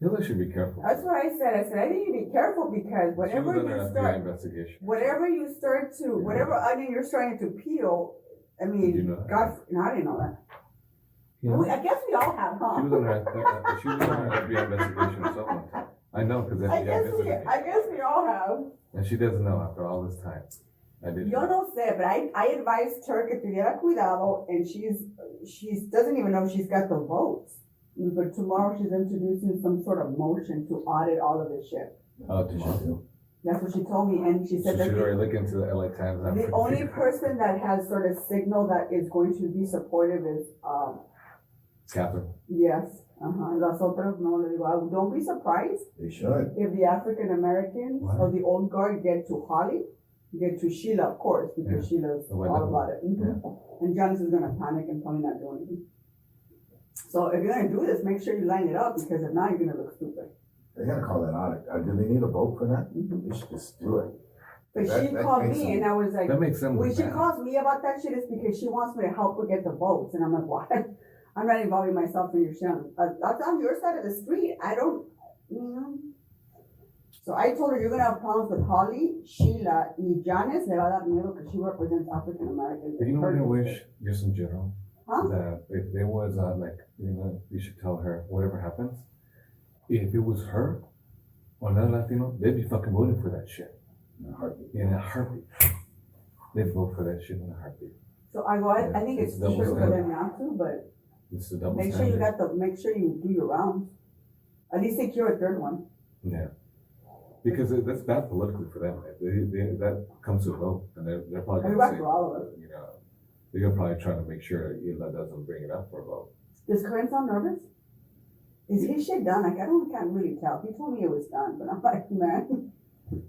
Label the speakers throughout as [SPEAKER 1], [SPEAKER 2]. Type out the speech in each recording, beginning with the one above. [SPEAKER 1] Hillary should be careful.
[SPEAKER 2] That's what I said. I said, I need to be careful because
[SPEAKER 1] She was
[SPEAKER 2] whatever
[SPEAKER 1] under
[SPEAKER 2] you
[SPEAKER 1] an
[SPEAKER 2] start,
[SPEAKER 1] FBI Investigation.
[SPEAKER 2] whatever you start to, whatever onion you're starting to peel, I
[SPEAKER 1] Did you
[SPEAKER 2] mean,
[SPEAKER 1] know that?
[SPEAKER 2] God, no, I didn't know that.
[SPEAKER 3] You know?
[SPEAKER 2] We- I guess we all have,
[SPEAKER 1] She was
[SPEAKER 2] huh?
[SPEAKER 1] under, a- a- she was under an FBI investigation or something like that. I know, because
[SPEAKER 2] I
[SPEAKER 1] FBI
[SPEAKER 2] guess we,
[SPEAKER 1] visited.
[SPEAKER 2] I guess we all have.
[SPEAKER 1] And she doesn't know after all this time. I did.
[SPEAKER 2] Yo no sé, but I, I advised her que tuviera cuidado, and she's she's doesn't even know she's got the votes. But tomorrow she's introducing some sort of motion to audit all of this shit.
[SPEAKER 1] Oh, did she?
[SPEAKER 2] That's what she told me, and she
[SPEAKER 1] So
[SPEAKER 2] said
[SPEAKER 1] she's
[SPEAKER 2] that the,
[SPEAKER 1] already looking to the LA Times. I'm
[SPEAKER 2] the
[SPEAKER 1] pretty
[SPEAKER 2] only
[SPEAKER 1] sure.
[SPEAKER 2] person that has sort of signal that is going to be supportive is um
[SPEAKER 1] Catherine.
[SPEAKER 2] yes. Uh-huh. Las otras no le digo, "Ah, don't be surprised
[SPEAKER 4] They should.
[SPEAKER 2] if the African Americans or
[SPEAKER 1] Wow.
[SPEAKER 2] the old guard get to Holly, get to Sheila, of course, because Sheila's
[SPEAKER 1] The white
[SPEAKER 2] all
[SPEAKER 1] devil.
[SPEAKER 2] about it. Mhm. And Janice is gonna panic and probably not do anything. So if you're gonna do this, make sure you line it up because if not, you're gonna look stupid.
[SPEAKER 4] They gotta call that audit. Uh, do they need a vote for that? They should just do it.
[SPEAKER 2] But
[SPEAKER 4] Mm-hmm. That-
[SPEAKER 2] she
[SPEAKER 4] that
[SPEAKER 2] called
[SPEAKER 4] makes
[SPEAKER 2] me
[SPEAKER 4] sense.
[SPEAKER 2] and I was like,
[SPEAKER 1] That makes them
[SPEAKER 2] when
[SPEAKER 1] look
[SPEAKER 2] she
[SPEAKER 1] bad.
[SPEAKER 2] calls me about that shit, it's because she wants me to help her get the votes, and I'm like, why? I'm not involving myself in your shit. I'm- uh, That's on your side of the street. I don't, you know. So I told her you're gonna have problems with Holly, Sheila, y Janice. Le va a dar miedo because she represents African Americans.
[SPEAKER 1] But you know what I wish, just in general,
[SPEAKER 2] Huh?
[SPEAKER 1] that if there was uh, like, you know, you should tell her whatever happens. If it was her or another Latino, they'd be fucking voting for that shit
[SPEAKER 4] In a heartbeat.
[SPEAKER 1] in a heartbeat. They'd vote for that shit in a heartbeat.
[SPEAKER 2] So I go. I, I think it's
[SPEAKER 1] It's double
[SPEAKER 2] true for
[SPEAKER 1] standard.
[SPEAKER 2] them not to, but
[SPEAKER 1] It's a double
[SPEAKER 2] make sure you
[SPEAKER 1] standard.
[SPEAKER 2] got the. Make sure you do your rounds. At least secure a third one.
[SPEAKER 1] Yeah. Because it- that's bad politically for them. If They, they, that comes to a vote and they're, they're probably
[SPEAKER 2] It's
[SPEAKER 1] gonna
[SPEAKER 2] bad
[SPEAKER 1] say,
[SPEAKER 2] for all of us.
[SPEAKER 1] you know, they're probably trying to make sure Elon doesn't bring it up for a vote.
[SPEAKER 2] Does Corinne sound nervous? Is his shit done? Like, I don't, can't really tell. He told me it was done, but I'm like, man.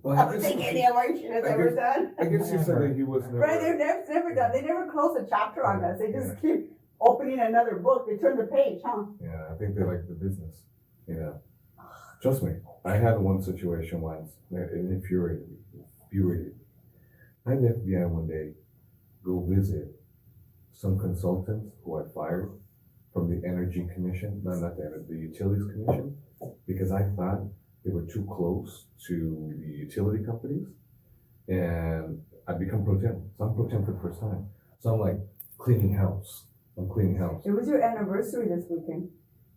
[SPEAKER 1] Well,
[SPEAKER 2] I don't think any of our shit is
[SPEAKER 1] I
[SPEAKER 2] ever
[SPEAKER 1] guess-
[SPEAKER 2] done.
[SPEAKER 1] I guess you said that he was never. Oh,
[SPEAKER 2] Right, they're never, it's never done. They never close a chapter on us. They just keep opening another book. They turn the page, huh?
[SPEAKER 1] Yeah, I think they like the business. You know, trust me. I had one situation once, and it infuriated me. Infuriated me. I had the FBI one day go visit some consultants who I fired from the Energy Commission, no, not the Energy, the Utilities Commission, because I thought they were too close to the utility companies, and I become pro tem. So I'm pro tem for the first time. So I'm like cleaning house. I'm cleaning house.
[SPEAKER 2] It was your anniversary this weekend.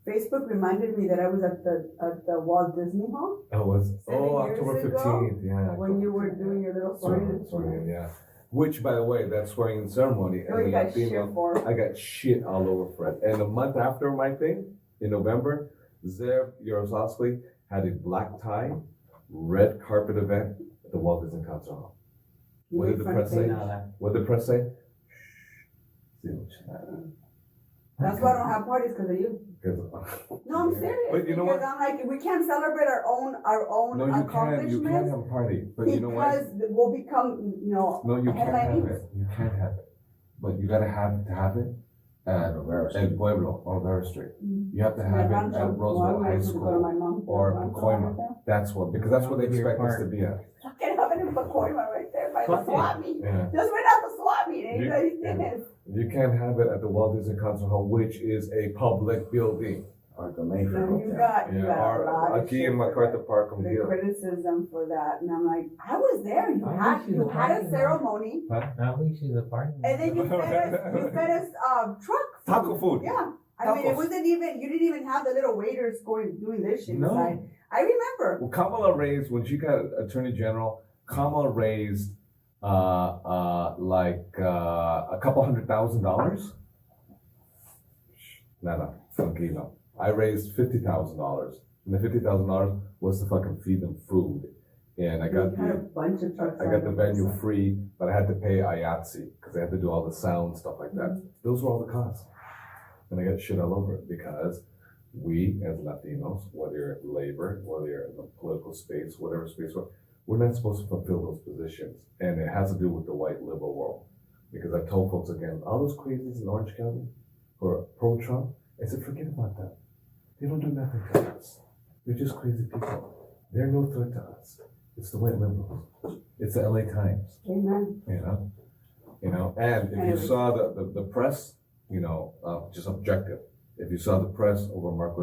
[SPEAKER 2] Facebook reminded me that I was at the, at the Walt Disney Hall
[SPEAKER 1] That was
[SPEAKER 2] Seven
[SPEAKER 1] oh
[SPEAKER 2] years
[SPEAKER 1] October
[SPEAKER 2] ago,
[SPEAKER 1] fifteenth, yeah.
[SPEAKER 2] when you were doing your little
[SPEAKER 1] swearing,
[SPEAKER 2] story.
[SPEAKER 1] yeah. Which, by the way, that swearing in ceremony
[SPEAKER 2] Oh,
[SPEAKER 1] and
[SPEAKER 2] you
[SPEAKER 1] the
[SPEAKER 2] got shit
[SPEAKER 1] Latino,
[SPEAKER 2] for.
[SPEAKER 1] I got shit all over for it. And a month after my thing in November, Zev Yaroslavsky had a black tie, red carpet event at the Walt Disney Concert Hall.
[SPEAKER 2] You
[SPEAKER 1] What
[SPEAKER 2] made
[SPEAKER 1] did the
[SPEAKER 2] fun
[SPEAKER 1] press
[SPEAKER 2] of
[SPEAKER 1] say?
[SPEAKER 2] me.
[SPEAKER 3] No, that-
[SPEAKER 1] What did the press say? Shh, see what you
[SPEAKER 2] That's why I don't have parties, because of you.
[SPEAKER 1] Because-
[SPEAKER 2] No, I'm serious.
[SPEAKER 1] But you know
[SPEAKER 2] because I'm like, we can't celebrate our own our own
[SPEAKER 1] No, you can't. You can't
[SPEAKER 2] accomplishments
[SPEAKER 1] have a party, but
[SPEAKER 2] because
[SPEAKER 1] you know what?
[SPEAKER 2] we'll become you know
[SPEAKER 1] No, you can't have
[SPEAKER 2] headliners.
[SPEAKER 1] it. You can't have it. But you gotta have to have it at El Pueblo on Rivera Street. You have to
[SPEAKER 2] my
[SPEAKER 1] have it
[SPEAKER 2] grandson-
[SPEAKER 1] at
[SPEAKER 2] well,
[SPEAKER 1] Roseville
[SPEAKER 2] I
[SPEAKER 1] High
[SPEAKER 2] wanted to go to
[SPEAKER 1] School.
[SPEAKER 2] my mom.
[SPEAKER 1] or
[SPEAKER 2] My grandson
[SPEAKER 1] Pacoima.
[SPEAKER 2] right there.
[SPEAKER 1] That's what, because that's what they expect us to be at.
[SPEAKER 2] I can have it in Pacoima right there by the
[SPEAKER 3] Fuck
[SPEAKER 2] swap meet.
[SPEAKER 1] Yeah.
[SPEAKER 2] Just right out the swap meet. and
[SPEAKER 1] You-
[SPEAKER 2] you guys did it.
[SPEAKER 1] You can't have it at the Walt Disney Concert Hall, which is a public building.
[SPEAKER 4] Or the main.
[SPEAKER 2] So you got you
[SPEAKER 1] Yeah,
[SPEAKER 2] got a lot
[SPEAKER 1] or
[SPEAKER 2] of
[SPEAKER 1] aquí
[SPEAKER 2] shit
[SPEAKER 1] en
[SPEAKER 2] for
[SPEAKER 1] MacArthur
[SPEAKER 2] that.
[SPEAKER 1] Park on
[SPEAKER 2] The
[SPEAKER 1] here.
[SPEAKER 2] criticism for that, and I'm like, I was there. You
[SPEAKER 3] I
[SPEAKER 2] had
[SPEAKER 3] wish you
[SPEAKER 2] you
[SPEAKER 3] were
[SPEAKER 2] had a
[SPEAKER 3] parking lot.
[SPEAKER 2] ceremony,
[SPEAKER 3] At least she's a party.
[SPEAKER 2] and then you fed us you fed us um truck food.
[SPEAKER 1] Taco food.
[SPEAKER 2] Yeah, I mean, it
[SPEAKER 1] Tacos.
[SPEAKER 2] wasn't even you didn't even have the little waiters going doing this shit.
[SPEAKER 1] No.
[SPEAKER 2] inside. I remember.
[SPEAKER 1] Well, Kamala raised when she got Attorney General. Kamala raised uh, uh, like uh, a couple hundred thousand dollars. No, no, tranquilo. I raised fifty thousand dollars, and the fifty thousand dollars was to fucking feed them food, and I got
[SPEAKER 2] We had a
[SPEAKER 1] the
[SPEAKER 2] bunch of trucks.
[SPEAKER 1] I
[SPEAKER 2] on
[SPEAKER 1] got the
[SPEAKER 2] it.
[SPEAKER 1] venue free, but I had to pay IATSE because I had to do all the sound stuff like that. Those were all the costs, and I got shit all over it because we as Latinos, whether you're at labor, whether you're in the political space, whatever space, we're- we're not supposed to fulfill those positions, and it has to do with the white liberal world. Because I told folks again, all those crazies in Orange County who are pro-Trump, I said, forget about that. They don't do nothing to us. They're just crazy people. They're no threat to us. It's the white liberals. It's the LA Times,
[SPEAKER 2] Amen.
[SPEAKER 1] you know? You know, and if you saw the, the, the press, you know, uh, just objective, if you saw the press over Marco